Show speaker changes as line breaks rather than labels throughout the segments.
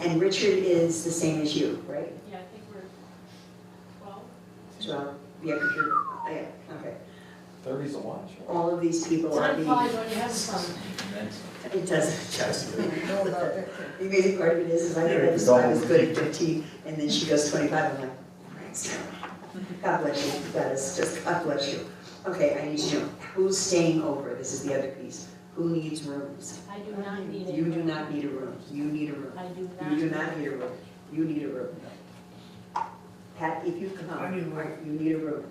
And Richard is the same as you, right?
Yeah, I think we're twelve.
Well, yeah, 'cause you're, oh, yeah, okay.
Thirty's a watch.
All of these people are
Time
the.
flies when oh, you have fun.
It doesn't, trust me.
know about that.
The amazing part of it is, is I think
Yeah,
I just, I was good at fifteen, and then she goes twenty-five, I'm like, thanks. God bless you, that is just, God bless you. Okay, I need to know, who's staying over, this is the other piece, who needs rooms?
I do not need it.
You do not need a room, you need a room,
I do not.
you do not need a room, you need a room. Pat, if you come,
I need a room.
you need a room.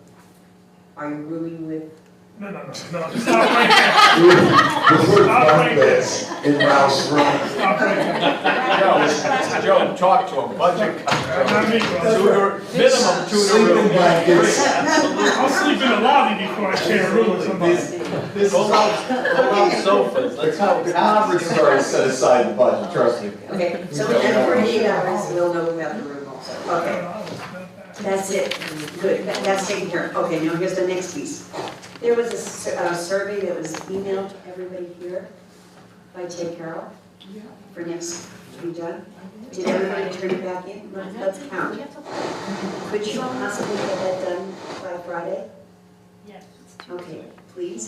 Are you rooming with,
No, no, no, no, stop right there,
Stop right there. In Ralph's room.
stop right there.
Joe, talk to him, budget
That's not me, bro.
tutor, minimum tutor
Sleeping
room.
blankets.
I'll sleep in the lobby before I share a room with somebody.
This is all sofas,
That's
let's
how
help.
the conference started, set aside the budget, trust me.
okay, so in forty-eight hours, we'll know about the room also, okay. That's it, good, That- that's taken care of. Okay, now here's the next piece. There was a s- a survey that was emailed to everybody here by Ted Carroll for next to be done. Did everybody turn it back in? Let's- Let's count. Could you possibly get that done by Friday?
Yes.
Okay, please.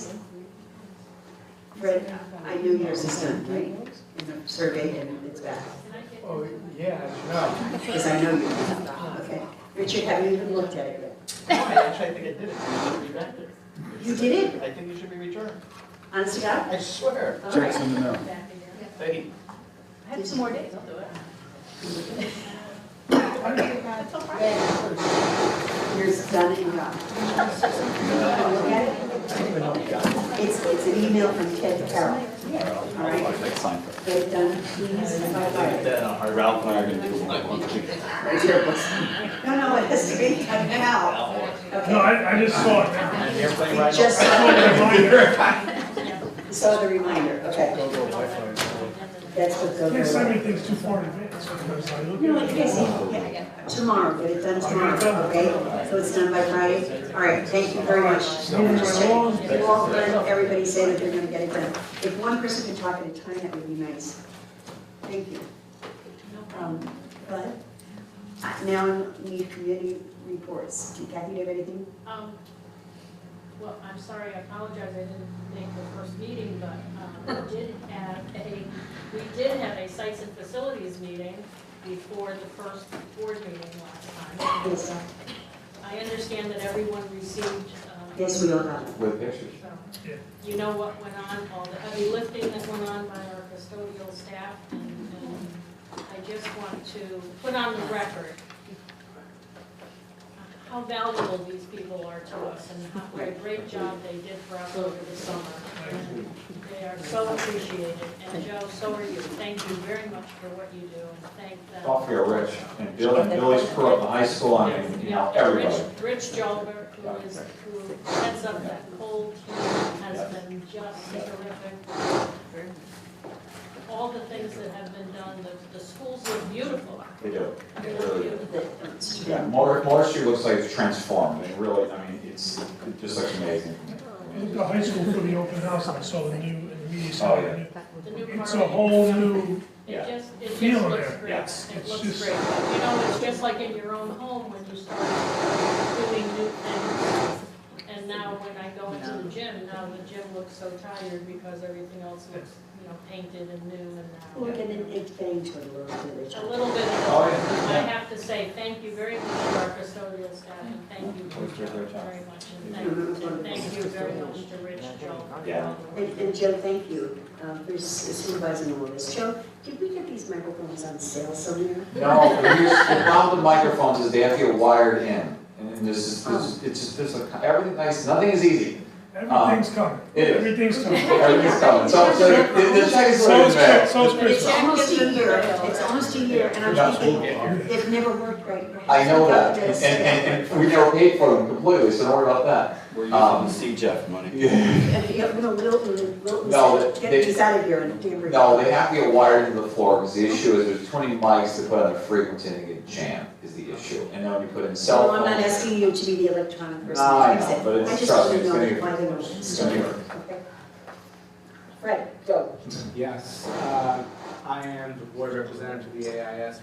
Fred, I knew yours is done, right? And the survey and it's back,
Can I get-
Oh, yeah, no.
because I know you. Okay. Richard, have you even looked at it yet?
Actually, I think I did it, you should be back there.
You did
I think you should be returned,
Honest to God?
I swear.
All right.
back in there?
Hey,
I have some more days, I'll do it.
Here's done and gone. Look at it. It's, it's an email from Ted Carroll. All right,
Like Seinfeld.
get it done, please, by Friday.
Ralph and I are gonna do like one thing.
Right here, please. No, no, it has to be done now.
No,
Okay,
I, I just saw it now.
an airplane
you
ride.
just
I saw
saw
it in my mind.
the- saw the reminder, okay. That's what
You Can't
goes
send me
on.
things too far in advance, sometimes I look
You know what,
at
you
it.
guys, yeah, tomorrow, get it done tomorrow, okay? So it's done by Friday. All right, thank you very much.
Moving
Just
right
check.
along.
You all learn, everybody say that they're gonna get it done. If one person could talk at a time, that would be nice. Thank you.
No
Um, But I now need committee reports. Do Kathy, do you have anything?
Um, well, I'm sorry, I apologize, I didn't make the first meeting, but, um, we did have a, we did have a sites and facilities meeting before the first board meeting last time. And,
Yes.
uh, I understand that everyone received, um.
Yes, we all got it.
With pictures.
So,
Yeah.
You know what went on, all the heavy lifting that went on by our custodial staff, and and I just want to put on the record how valuable these people are to us and how, what a great job they did for us over the summer. And They are so appreciated, and Joe, so are you. Thank you very much for what you do, and thank them.
Coffee or rich, and Bill, Billy's Pro, the high school, I mean, you know,
Yeah,
everybody.
Rich- Rich Jolber, who is, who heads up that whole team, has been just terrific. All the things that have been done, the, the schools look beautiful.
They do. They really do.
That-
Yeah, Mar, Marsh Street looks like it's transformed, it really, I mean, it's, it just looks amazing.
I went to high school for the open house, and I saw the new, and the media
Oh, yeah.
center.
The new
It's a
park.
whole new,
It just, it just
Feel
looks
there.
great.
Yes.
It
It's
looks
just-
great. You know, it's just like in your own home when you start doing new things. And now when I go into the gym, now the gym looks so tired because everything else looks, you know, painted and new and now.
Look, and then it's getting to a little bit rich.
a little bit of I
Oh, yeah.
have to say, thank you very much to our custodial staff, and thank you
Thanks for
Georgia,
your time.
very much, and thank, and thank you very much to Rich Joel.
Yeah.
And, and Joe, thank you um, for supervising all this. Joe, did we get these microphones on sale somewhere?
No, here's, the problem with microphones is they have to get wired in, and this is, this is- it's just, there's a, everything, nice, nothing is easy.
everything's coming,
Uh, It is.
everything's coming.
Everything's coming, so, so, the, the check is
So is,
laid in the mail.
Chri- so is
It's
Christmas.
almost a year, it's almost a year, and I'm
That's-
thinking,
we'll get here.
they've never worked right.
I know that,
About
and,
this.
and, and we never paid for them completely, so don't worry about that.
We're
Um,
using the C Jeff money.
Yeah.
And, you know, Wilton, Wilton
No,
said,
they-
get these out of here and damn it.
No, they have to get wired into the floor, because the issue is there's too many mics to put on the frequency and they get jammed, is the issue, and then when you put in cell
So
phones.
I'm not asking you to be the electronic person.
No, I
like said.
know, but it's-
I just
trust
want
me,
to
it's
know
gonna get-
why they were
it's gonna get-
Okay. Right, go.
Yes, uh,
I am the board representative to the AIS